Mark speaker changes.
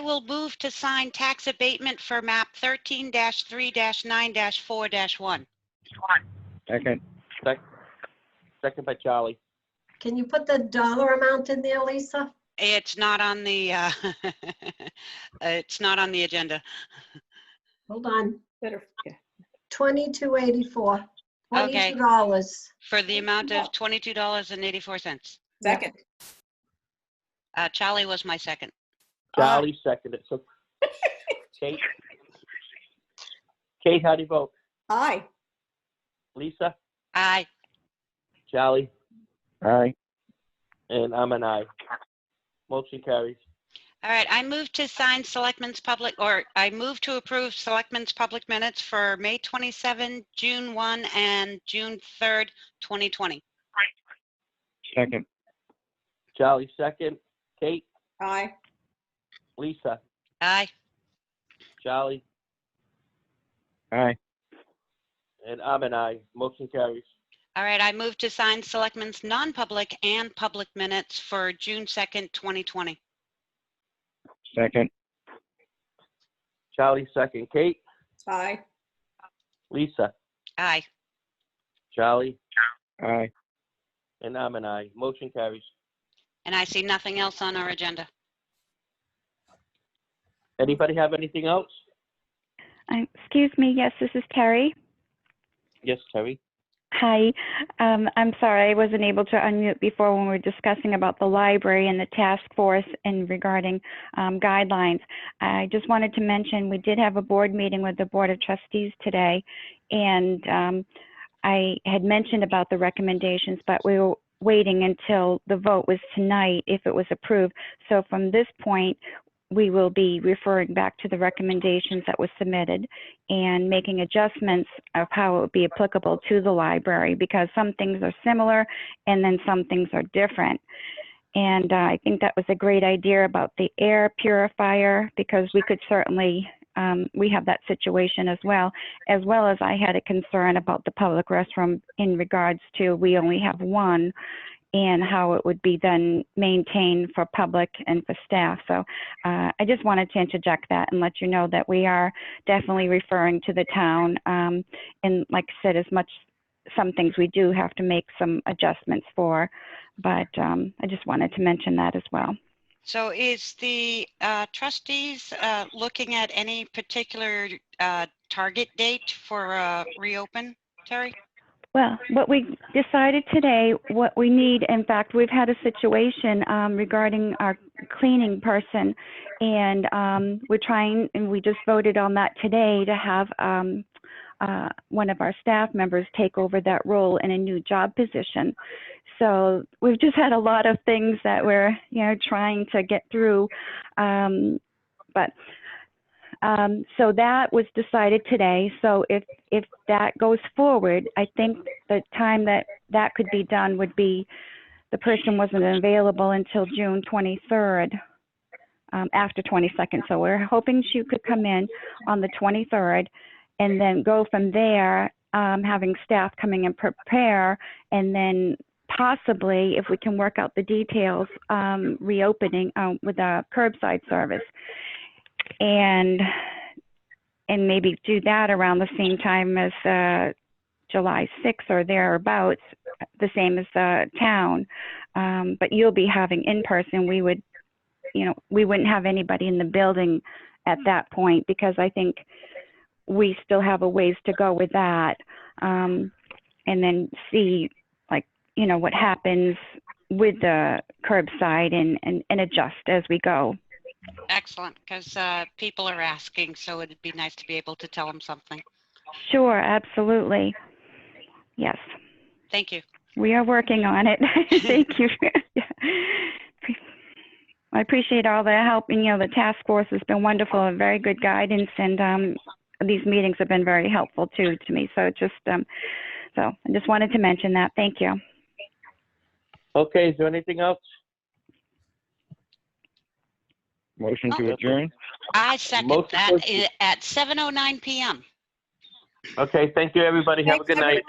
Speaker 1: will move to sign tax abatement for map 13-3-9-4-1.
Speaker 2: Second.
Speaker 3: Sec- Second by Charlie.
Speaker 4: Can you put the dollar amount in there, Lisa?
Speaker 1: It's not on the, uh, it's not on the agenda.
Speaker 4: Hold on,
Speaker 5: Better, yeah.
Speaker 4: twenty-two eighty-four,
Speaker 1: Okay.
Speaker 4: twenty-two dollars.
Speaker 1: For the amount of $22.84.
Speaker 5: Second.
Speaker 1: Uh, Charlie was my second.
Speaker 3: Charlie seconded, so. Kate? Kate, how do you vote?
Speaker 5: Aye.
Speaker 3: Lisa?
Speaker 1: Aye.
Speaker 3: Charlie?
Speaker 2: Aye.
Speaker 3: And I'm an aye. Motion carries.
Speaker 1: All right, I move to sign Selectmen's Public, or I move to approve Selectmen's Public Minutes for May 27, June 1, and June 3rd, 2020.
Speaker 2: Second.
Speaker 3: Charlie second. Kate?
Speaker 5: Aye.
Speaker 3: Lisa?
Speaker 1: Aye.
Speaker 3: Charlie?
Speaker 2: Aye.
Speaker 3: And I'm an aye. Motion carries.
Speaker 1: All right, I move to sign Selectmen's Non-Public and Public Minutes for June 2nd, 2020.
Speaker 2: Second.
Speaker 3: Charlie second. Kate?
Speaker 5: Aye.
Speaker 3: Lisa?
Speaker 1: Aye.
Speaker 3: Charlie?
Speaker 2: Aye.
Speaker 3: And I'm an aye. Motion carries.
Speaker 1: And I see nothing else on our agenda.
Speaker 3: Anybody have anything else?
Speaker 6: Um, Excuse me, yes, this is Terry.
Speaker 3: Yes, Terry?
Speaker 6: Hi, um, I'm sorry, I wasn't able to unmute before when we were discussing about the library and the task force and regarding um, guidelines. I just wanted to mention, we did have a board meeting with the Board of Trustees today, and um, I had mentioned about the recommendations, but we were waiting until the vote was tonight if it was approved. So from this point, we will be referring back to the recommendations that was submitted and making adjustments of how it would be applicable to the library because some things are similar and then some things are different. And uh, I think that was a great idea about the air purifier because we could certainly, um, we have that situation as well, as well as I had a concern about the public restroom in regards to we only have one and how it would be then maintained for public and for staff. So uh, I just wanted to interject that and let you know that we are definitely referring to the town. Um, and like I said, as much some things we do have to make some adjustments for, but um, I just wanted to mention that as well.
Speaker 1: So is the uh, trustees uh, looking at any particular uh, target date for uh, reopen, Terry?
Speaker 6: Well, what we decided today, what we need, in fact, we've had a situation um, regarding our cleaning person, and um, we're trying, and we just voted on that today to have um, uh, one of our staff members take over that role in a new job position. So we've just had a lot of things that we're, you know, trying to get through. Um, but um, so that was decided today. So if if that goes forward, I think the time that that could be done would be the person wasn't available until June 23rd, um, after 22nd. So we're hoping she could come in on the 23rd and then go from there, um, having staff coming and prepare and then possibly if we can work out the details, um, reopening, um, with a curbside service. And and maybe do that around the same time as uh, July 6th or thereabouts, the same as the town. Um, but you'll be having in person. We would, you know, we wouldn't have anybody in the building at that point because I think we still have a ways to go with that. Um, and then see, like, you know, what happens with the curbside and, and, and adjust as we go.
Speaker 1: Excellent, because people are asking, so it'd be nice to be able to tell them something.
Speaker 6: Sure, absolutely. Yes.
Speaker 1: Thank you.
Speaker 6: We are working on it. Thank you. Yeah. I appreciate all the help and, you know, the task force has been wonderful and very good guidance and, um, these meetings have been very helpful too, to me. So just, um, so I just wanted to mention that. Thank you.
Speaker 3: Okay, is there anything else?
Speaker 2: Motion
Speaker 3: Oh.
Speaker 2: to adjourn?
Speaker 1: I second
Speaker 3: Most
Speaker 1: that eh,
Speaker 3: appropriate.
Speaker 1: oh i- at 7:09 PM.
Speaker 3: Okay, thank you, everybody. Have a
Speaker 5: Thanks,
Speaker 3: good night.